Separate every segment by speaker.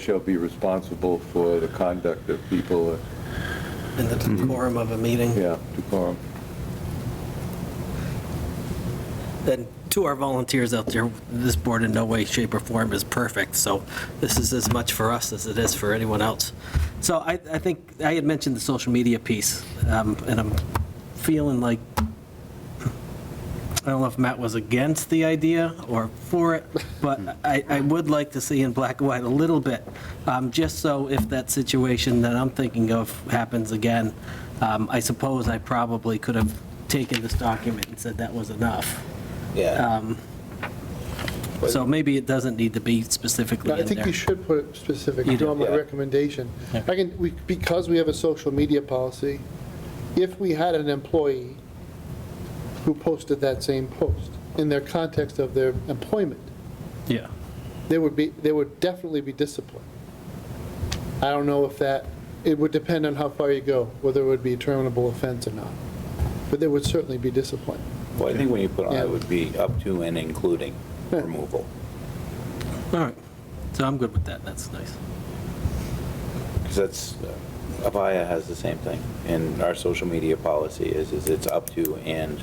Speaker 1: shall be responsible for the conduct of people, uh,
Speaker 2: in the decorum of a meeting.
Speaker 1: yeah, decorum.
Speaker 2: And to our volunteers out there, this board in no way, shape, or form is perfect, so this is as much for us as it is for anyone else. So I, I think, I had mentioned the social media piece, um, and I'm feeling like, I don't know if Matt was against the idea or for it, but
Speaker 3: Hmm.
Speaker 2: I, I would like to see in black and white a little bit, um, just so if that situation that I'm thinking of happens again, um, I suppose I probably could have taken this document and said that was enough. Um,
Speaker 3: Yeah.
Speaker 2: So maybe it doesn't need to be specifically
Speaker 4: No, I
Speaker 2: in
Speaker 4: think
Speaker 2: there.
Speaker 4: you should put specific,
Speaker 2: You do,
Speaker 4: on my
Speaker 3: yeah.
Speaker 4: recommendation. I can, we- because we have a social media policy, if we had an employee who posted that same post in their context of their employment,
Speaker 2: Yeah.
Speaker 4: they would be, they would definitely be disciplined. I don't know if that, it would depend on how far you go, whether it would be a terminable offense or not, but there would certainly be discipline.
Speaker 3: Well, I think when you put on,
Speaker 4: Yeah.
Speaker 3: it would be up to and including
Speaker 4: Yeah.
Speaker 3: removal.
Speaker 2: All right. So I'm good with that. That's nice.
Speaker 3: Because that's, uh, Avaya has the same thing. And our social media policy is, is it's up to and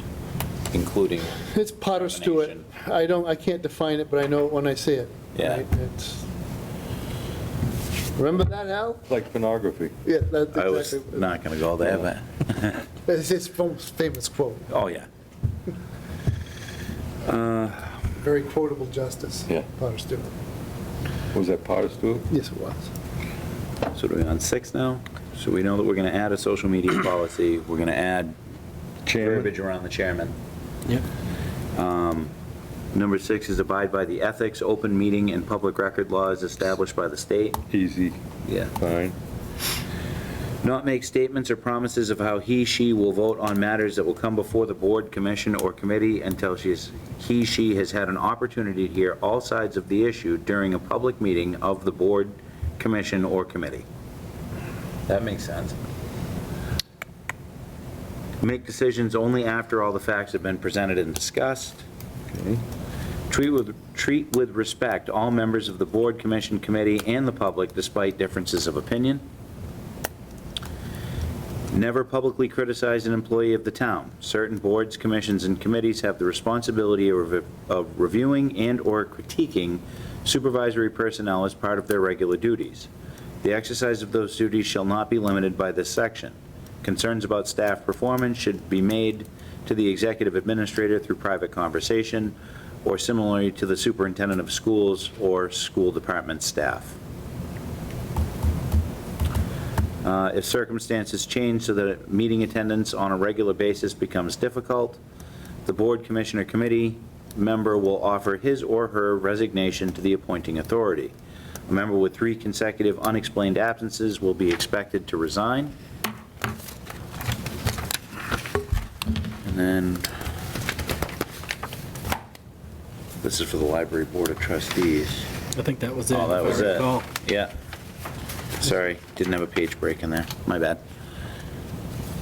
Speaker 3: including,
Speaker 4: It's Potter Stewart. I don't, I can't define it, but I know it when I see it.
Speaker 3: Yeah.
Speaker 4: Right? It's- Remember that, Al?
Speaker 1: Like pornography.
Speaker 4: Yeah, that's
Speaker 3: I was
Speaker 4: exactly.
Speaker 3: not going to go there, but,
Speaker 4: It's his most famous quote,
Speaker 3: oh, yeah. Uh,
Speaker 4: very quotable justice.
Speaker 1: Yeah.
Speaker 4: Potter Stewart.
Speaker 1: Was that part of Stu?
Speaker 4: Yes, it was.
Speaker 3: So are we on six now? So we know that we're going to add a social media policy, we're going to add verbiage around the chairman.
Speaker 2: Yep.
Speaker 3: Number six is abide by the ethics, open meeting, and public record laws established by the state.
Speaker 1: Easy,
Speaker 3: Yeah.
Speaker 1: fine.
Speaker 3: Not make statements or promises of how he, she will vote on matters that will come before the board, commission, or committee until she is, he, she has had an opportunity to hear all sides of the issue during a public meeting of the board, commission, or committee. That makes sense. Make decisions only after all the facts have been presented and discussed. Treat with, treat with respect all members of the board, commission, committee, and the public despite differences of opinion. Never publicly criticize an employee of the town. Certain boards, commissions, and committees have the responsibility of of reviewing and/or critiquing supervisory personnel as part of their regular duties. The exercise of those duties shall not be limited by this section. Concerns about staff performance should be made to the executive administrator through private conversation, or similarly to the superintendent of schools or school department staff. Uh, If circumstances change so that meeting attendance on a regular basis becomes difficult, the board commissioner committee member will offer his or her resignation to the appointing authority. A member with three consecutive unexplained absences will be expected to resign. And then, this is for the library board of trustees.
Speaker 2: I think that was it.
Speaker 3: Oh, that
Speaker 2: if I
Speaker 3: was it.
Speaker 2: recall.
Speaker 3: Yeah. Sorry, didn't have a page break in there. My bad.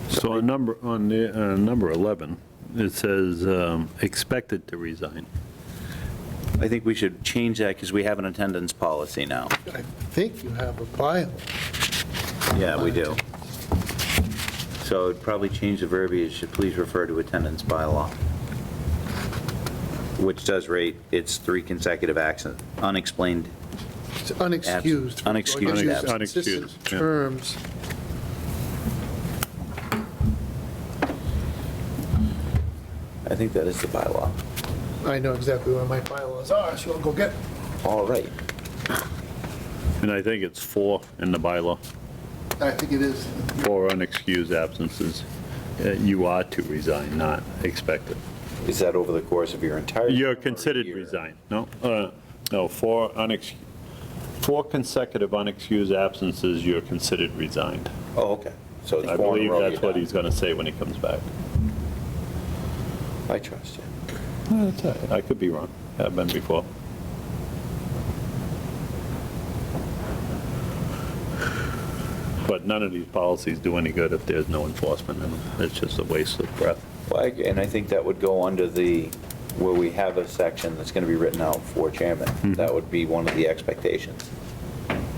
Speaker 5: So on number, on the, uh, number 11, it says um, expected to resign.
Speaker 3: I think we should change that because we have an attendance policy now.
Speaker 4: I think you have a bio.
Speaker 3: Yeah, we do. So it'd probably change the verbiage to please refer to attendance bylaw, which does rate its three consecutive accent, unexplained.
Speaker 4: It's unexcused.
Speaker 3: Abs- unexcused
Speaker 4: Use
Speaker 3: absence.
Speaker 4: consistent
Speaker 5: Unexcused, yeah.
Speaker 4: Terms.
Speaker 3: I think that is the bylaw.
Speaker 4: I know exactly where my bylaws are, so I'll go get it.
Speaker 3: All right.
Speaker 5: And I think it's four in the bylaw,
Speaker 4: I think it is.
Speaker 5: four unexcused absences. Uh, You are to resign, not expected.
Speaker 3: Is that over the course of your entire?
Speaker 5: You're considered
Speaker 3: year?
Speaker 5: resigned, no? uh, No, four unex, four consecutive unexcused absences, you're considered resigned.
Speaker 3: Oh, okay. So it's
Speaker 5: I
Speaker 3: four in a
Speaker 5: believe
Speaker 3: row
Speaker 5: that's
Speaker 3: you're
Speaker 5: what
Speaker 3: done.
Speaker 5: he's going to say when he comes back.
Speaker 3: I trust you.
Speaker 5: No, that's all right. I could be wrong. I've been before. But none of these policies do any good if there's no enforcement in them. It's just a waste of breath.
Speaker 3: Well, I- and I think that would go under the, where we have a section that's going to be written out for chairman. That would be one of the expectations.